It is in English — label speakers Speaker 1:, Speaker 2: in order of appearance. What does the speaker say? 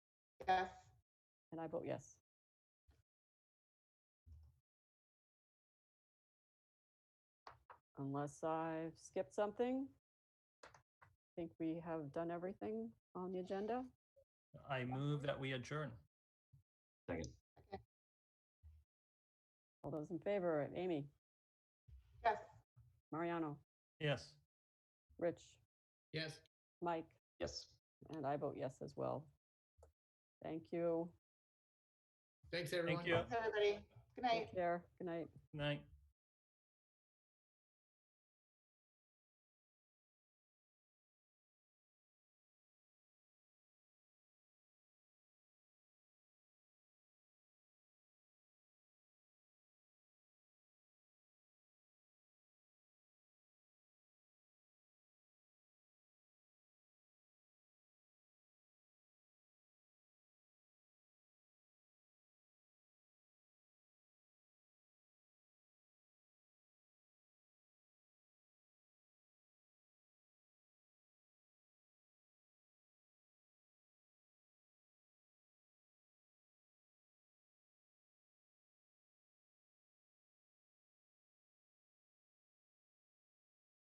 Speaker 1: Yes.
Speaker 2: And I vote yes. Unless I've skipped something. I think we have done everything on the agenda.
Speaker 3: I move that we adjourn.
Speaker 4: Second.
Speaker 2: All those in favor, Amy,
Speaker 1: Yes.
Speaker 2: Mariano,
Speaker 3: Yes.
Speaker 2: Rich,
Speaker 5: Yes.
Speaker 2: Mike,
Speaker 4: Yes.
Speaker 2: and I vote yes as well. Thank you.
Speaker 5: Thanks, everyone.
Speaker 3: you.
Speaker 1: Thanks, everybody. Good night.
Speaker 2: Take care. Good night.
Speaker 3: Night.